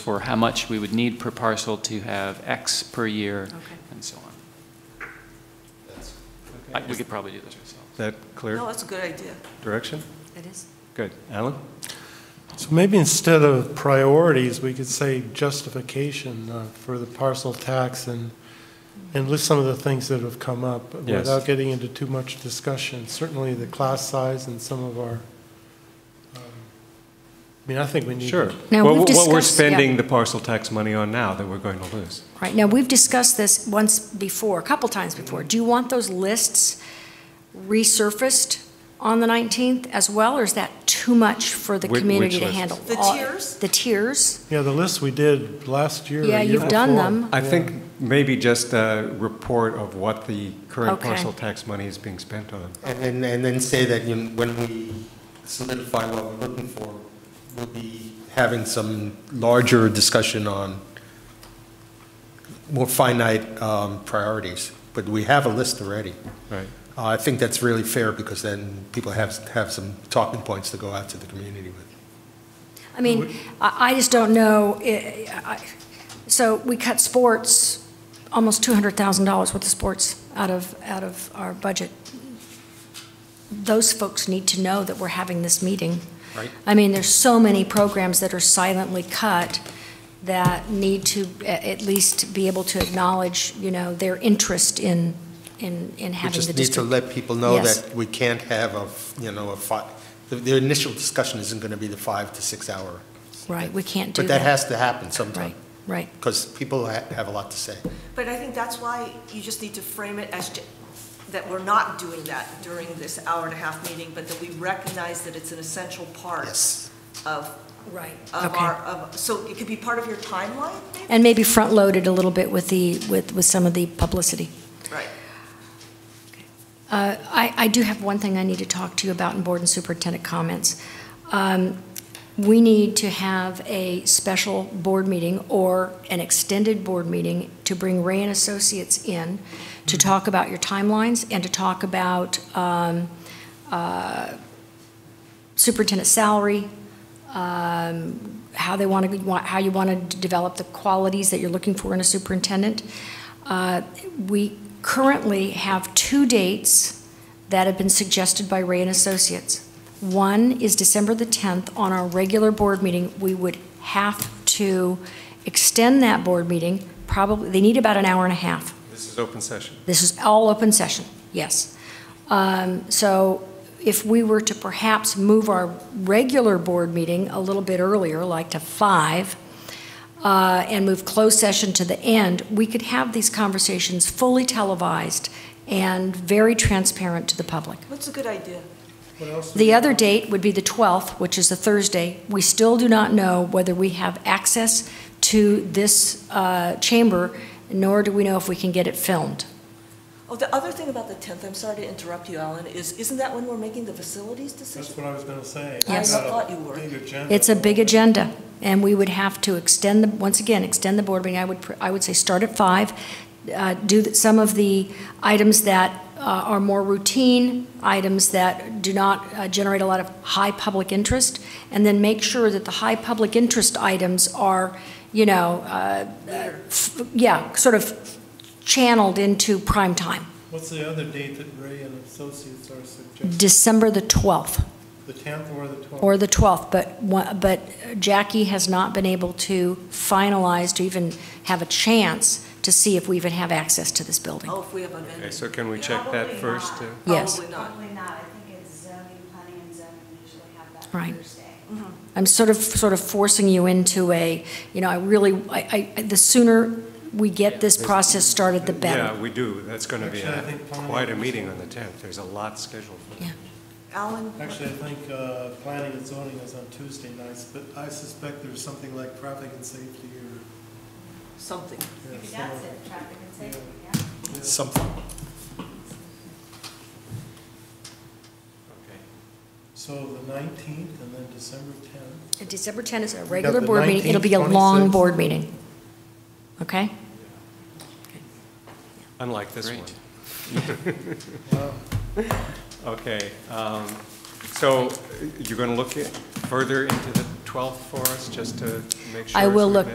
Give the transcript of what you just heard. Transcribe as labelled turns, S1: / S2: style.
S1: for how much we would need per parcel to have X per year
S2: Okay.
S1: and so on. I- We could probably do this ourselves.
S3: Is that
S2: No,
S3: clear
S2: that's a good idea.
S3: direction?
S2: It is.
S3: Good. Alan?
S4: So maybe instead of priorities, we could say justification uh, for the parcel tax and, and list some of the things that have come up
S3: Yes.
S4: without getting into too much discussion. Certainly the class size and some of our, um, I mean, I think we need.
S3: Sure.
S5: Now,
S3: What-
S5: we've
S3: What we're
S5: discussed- yeah.
S3: spending the parcel tax money on now that we're going to lose.
S5: Right, now, we've discussed this once before, a couple times before. Do you want those lists resurfaced on the 19th as well, or is that too much for the
S3: Whi- which
S5: community to
S3: lists?
S5: handle?
S2: The
S5: All-
S2: tiers?
S5: The tiers,
S4: Yeah, the list we did last year. or
S5: Yeah,
S4: year
S5: you've done
S4: before.
S5: them.
S3: I
S4: Yeah.
S3: think maybe just a report of what the current
S5: Okay.
S3: parcel tax money is being spent on.
S6: And, and, and then say that, you know, when we solidify what we're looking for, we'll be having some larger discussion on more finite, um, priorities, but we have a list already.
S3: Right.
S6: Uh, I think that's really fair because then people have, have some talking points to go out to the community with.
S5: I mean, I, I just don't know, I- I- so we cut sports, almost $200,000 worth of sports out of, out of our budget. Those folks need to know that we're having this meeting.
S6: Right.
S5: I mean, there's so many programs that are silently cut that need to a- at least be able to acknowledge, you know, their interest in, in, in
S6: We
S5: having the
S6: just need to
S5: district.
S6: let people know
S5: Yes.
S6: that we can't have a, f- you know, a fi, the, the initial discussion isn't gonna be the five to six hour.
S5: Right, we can't do
S6: But
S5: that.
S6: that has to happen sometime,
S5: Right, right.
S6: because people ha- have a lot to say.
S2: But I think that's why you just need to frame it as, ju- that we're not doing that during this hour and a half meeting, but that we recognize that it's an essential part
S6: Yes.
S2: of,
S5: Right.
S2: of
S5: Okay.
S2: our, of, so it could be part of your timeline, maybe?
S5: And maybe front-loaded a little bit with the, with, with some of the publicity.
S2: Right.
S5: Uh, I, I do have one thing I need to talk to you about in board and superintendent comments. Um, We need to have a special board meeting or an extended board meeting to bring Ray and Associates in to talk about your timelines and to talk about um, uh, superintendent salary, um, how they want to, how you want to develop the qualities that you're looking for in a superintendent. Uh, We currently have two dates that have been suggested by Ray and Associates. One is December the 10th, on our regular board meeting, we would have to extend that board meeting, probably, they need about an hour and a half.
S3: This is open session.
S5: This is all open session, yes. Um, So if we were to perhaps move our regular board meeting a little bit earlier, like to five, uh, and move closed session to the end, we could have these conversations fully televised and very transparent to the public.
S2: What's a good idea?
S5: The other date would be the 12th, which is a Thursday. We still do not know whether we have access to this uh, chamber, nor do we know if we can get it filmed.
S2: Oh, the other thing about the 10th, I'm sorry to interrupt you, Alan, is, isn't that when we're making the facilities
S4: That's
S2: decision?
S4: what I was gonna say.
S5: Yes.
S2: I thought you were.
S4: Big agenda.
S5: It's a big agenda, and we would have to extend the, once again, extend the board meeting. I would, pr- I would say start at five, uh, do th- some of the items that uh, are more routine, items that do not uh, generate a lot of high public interest, and then make sure that the high public interest items are, you know, uh, f- yeah, sort of channeled into prime time.
S4: What's the other date that Ray and Associates are suggesting?
S5: December the 12th.
S4: The 10th or the 12th?
S5: Or the 12th, but, one- but Jackie has not been able to finalize, to even have a chance to see if we even have access to this building.
S2: Oh, if we have a venue.
S3: Okay, so can we check that first? uh,
S5: Yes.
S2: Probably not.
S7: Probably not, I think it's zoning, planning and zoning usually have that
S5: Right.
S7: Thursday.
S5: I'm sort of, sort of forcing you into a, you know, I really, I, I, the sooner we get this process started, the better.
S3: Yeah, we do. That's going to be
S4: Actually, I
S3: a-
S4: think planning-
S3: quite a meeting on the 10th. There's a lot scheduled for that.
S5: Yeah.
S2: Alan?
S4: Actually, I think uh, planning and zoning is on Tuesday nights, but I suspect there's something like traffic and safety or.
S2: Something.
S4: yeah,
S7: Maybe that's
S4: something.
S7: it, traffic and safety, yeah.
S6: Something.
S4: So the 19th and then December 10th.
S5: December 10th is a regular
S4: the
S5: board meeting, it'll be a
S4: 19th,
S5: long
S4: 26th.
S5: board meeting. Okay?
S3: Unlike this
S1: Great.
S3: one. Okay, um, so uh, you're going to look at- further into the 12th for us, just to make sure?
S5: I
S3: so
S5: will
S3: we
S5: look